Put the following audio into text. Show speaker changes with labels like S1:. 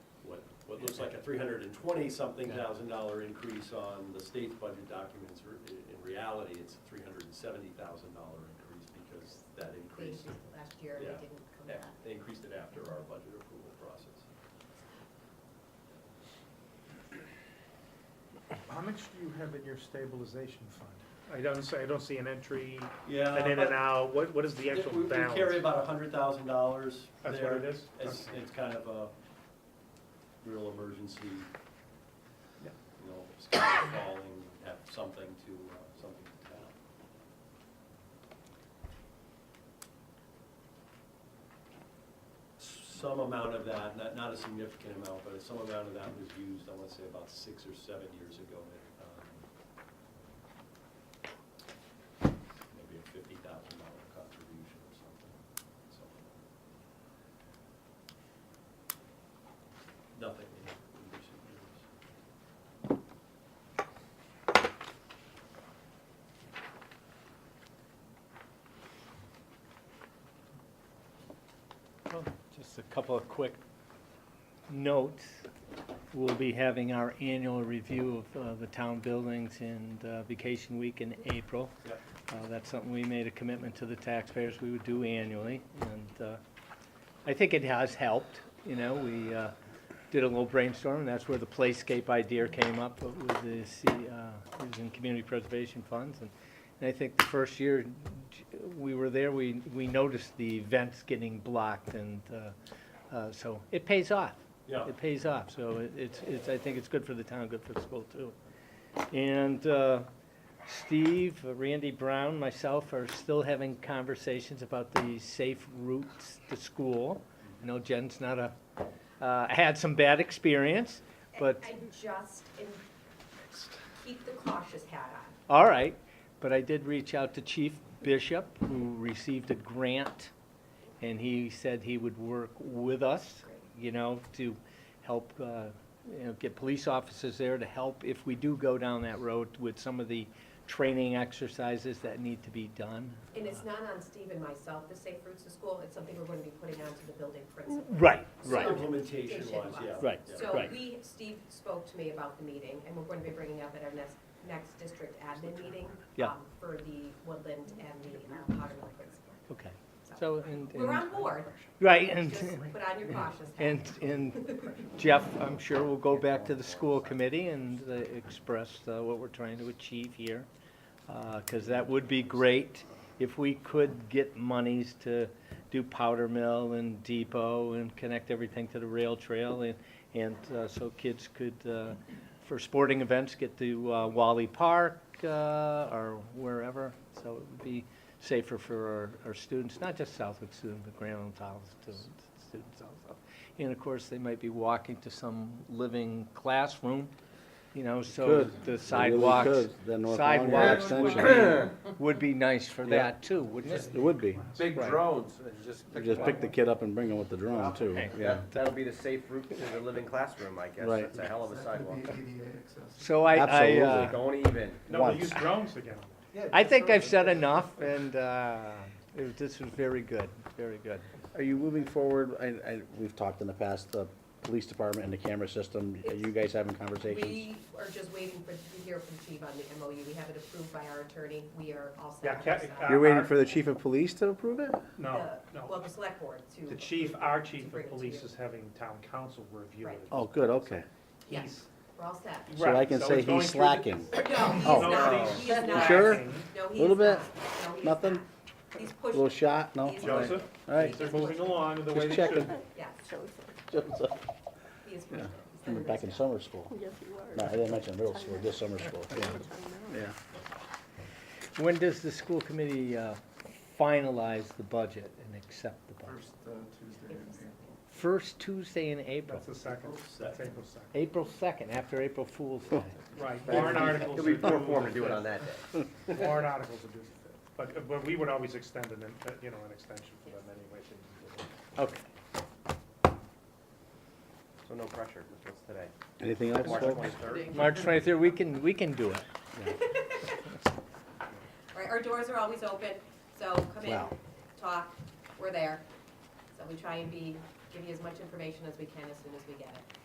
S1: it looks like a three hundred and twenty-something thousand dollar increase on the state's budget documents. Re- In reality, it's a three hundred and seventy thousand dollar increase because that
S2: They
S1: increase,
S2: increased it last year and
S1: Yeah.
S2: it didn't come
S1: yeah,
S2: back.
S1: they increased it after our budget approval process.
S3: How much do you have in your stabilization fund? I don't see, I don't see an entry,
S2: Uh,
S1: Yeah.
S3: an in and out, what, what is the
S1: but
S3: actual
S1: we- We carry
S3: balance?
S1: about a hundred thousand dollars there.
S3: That's what it is?
S1: It's,
S3: Okay.
S1: it's kind of a real emergency,
S3: Yeah.
S1: you know, sky is falling, have something to, uh, something to tell. Some amount of that, not, not a significant amount, but some amount of that was used, I wanna say about six or seven years ago. at, um, Maybe a fifty thousand dollar contribution or something, so. Nothing in recent years.
S4: Well, Just a couple of quick notes. We'll be having our annual review of uh, the town buildings and uh, vacation week in April.
S1: Yep.
S4: Uh, That's something we made a commitment to the taxpayers we would do annually, and uh, I think it has helped, you know, we uh, did a little brainstorm, and that's where the playscape idea came up with the, C- uh, using community preservation funds, and and I think the first year j- we were there, we, we noticed the events getting blocked, and uh, uh, so it pays off.
S1: Yeah.
S4: It pays off, so it- it's, it's, I think it's good for the town, good for the school, too. And uh, Steve, Randy Brown, myself are still having conversations about the safe routes to school. I know Jen's not a, uh, had some bad experience, but,
S2: And just, and keep the cautious hat on.
S4: all right. But I did reach out to Chief Bishop, who received a grant, and he said he would work with us, you know, to help, uh, you know, get police officers there to help if we do go down that road with some of the training exercises that need to be done.
S2: And it's not on Steve and myself, the Safe Routes to School, it's something we're gonna be putting on to the building principal.
S4: Right,
S2: right.
S1: Implementation wise, yeah.
S4: Right,
S1: yeah.
S2: So
S4: right.
S2: we, Steve spoke to me about the meeting, and we're going to be bringing up at our next, next district admin meeting
S4: Yeah.
S2: um, for the Woodland and the uh, Powder Mill principal.
S4: Okay, so, and.
S2: We're
S4: and-
S2: on board,
S4: Right, and,
S2: just put on your cautious hat.
S4: and, and Jeff, I'm sure will go back to the school committee and uh, express uh, what we're trying to achieve here. Because that would be great if we could get monies to do powder mill and depot and connect everything to the rail trail. And, and uh, so kids could, uh, for sporting events, get to uh, Wally Park uh, or wherever. So it would be safer for our, our students, not just Southwick students, but Grand Island Town students, students also. And of course, they might be walking to some living classroom, you know, so
S5: could.
S4: the
S5: They really
S4: sidewalks
S5: could. The North Lawn Yard
S4: sidewalks would
S5: extension.
S4: be, would be nice for
S5: Yeah.
S4: that too, wouldn't it?
S5: It would be.
S6: Big
S4: Right.
S6: drones and just pick
S5: Just
S6: them
S5: pick
S6: up.
S5: the kid up and bring him with the drone too,
S4: Okay.
S5: yeah.
S6: That- That'll be the safe route to the living classroom, I guess.
S5: Right.
S6: That's a hell of a sidewalk.
S4: So I, I, uh,
S5: Absolutely.
S6: Don't even.
S3: No, we
S5: Once.
S3: use drones again.
S4: I think I've said enough and, uh, it- this was very good, very good.
S5: Are you moving forward, I, I, we've talked in the past, the police department and the camera system, are you guys having conversations?
S2: We are just waiting for, to hear from Steve on the MOU, we have it approved by our attorney, we are all
S3: Yeah,
S2: set.
S3: ca-
S2: on our
S3: uh,
S2: side.
S5: You're waiting for the chief of police to approve it?
S3: No,
S2: The-
S3: no.
S2: Uh, Well, the select board to.
S3: The chief, our chief
S2: bring it
S3: of
S2: to
S3: police
S2: you.
S3: is having town council review
S2: Right.
S3: it.
S5: Oh, good, okay.
S2: Yeah,
S3: He's-
S2: we're all set.
S5: So I
S3: Right,
S5: can
S3: so
S5: say
S3: it's going
S5: he's
S3: through the-
S5: slacking.
S2: No, he's
S5: Oh.
S2: not,
S3: No.
S2: he's not.
S5: Sure?
S2: No, he's
S5: Little bit?
S2: not. No, he's
S5: Nothing?
S2: not. He's pushed.
S5: Little shot, no?
S2: He's-
S3: Joseph,
S5: All right,
S3: things are moving along the way they
S5: just
S3: should.
S5: checking.
S2: Yeah,
S5: Joseph,
S2: he is pushed. it. He's done
S5: I'm
S2: a
S5: Back
S2: nice
S5: in
S2: job.
S5: summer school.
S7: Yes, you are.
S5: No, I didn't mention middle school, just summer school, yeah. Yeah.
S4: When does the school committee, uh, finalize the budget and accept the budget?
S8: First uh, Tuesday in April.
S4: First Tuesday in April,
S3: That's the second, that's April second.
S4: April second, after April Fool's Day.
S3: Right, warrant articles
S6: It'll
S3: are
S6: be
S3: due.
S6: poor form to do it on that day.
S3: Warrant articles are due. But, but we would always extend an, uh, you know, an extension for them anyway. things.
S4: Okay.
S6: So no pressure. What's today?
S5: Anything else,
S6: March
S5: folks?
S6: twenty-third?
S4: March twenty-third, we can, we can do it.
S2: All right, our doors are always open, so come in,
S5: Wow.
S2: talk, we're there. So we try and be, give you as much information as we can as soon as we get it.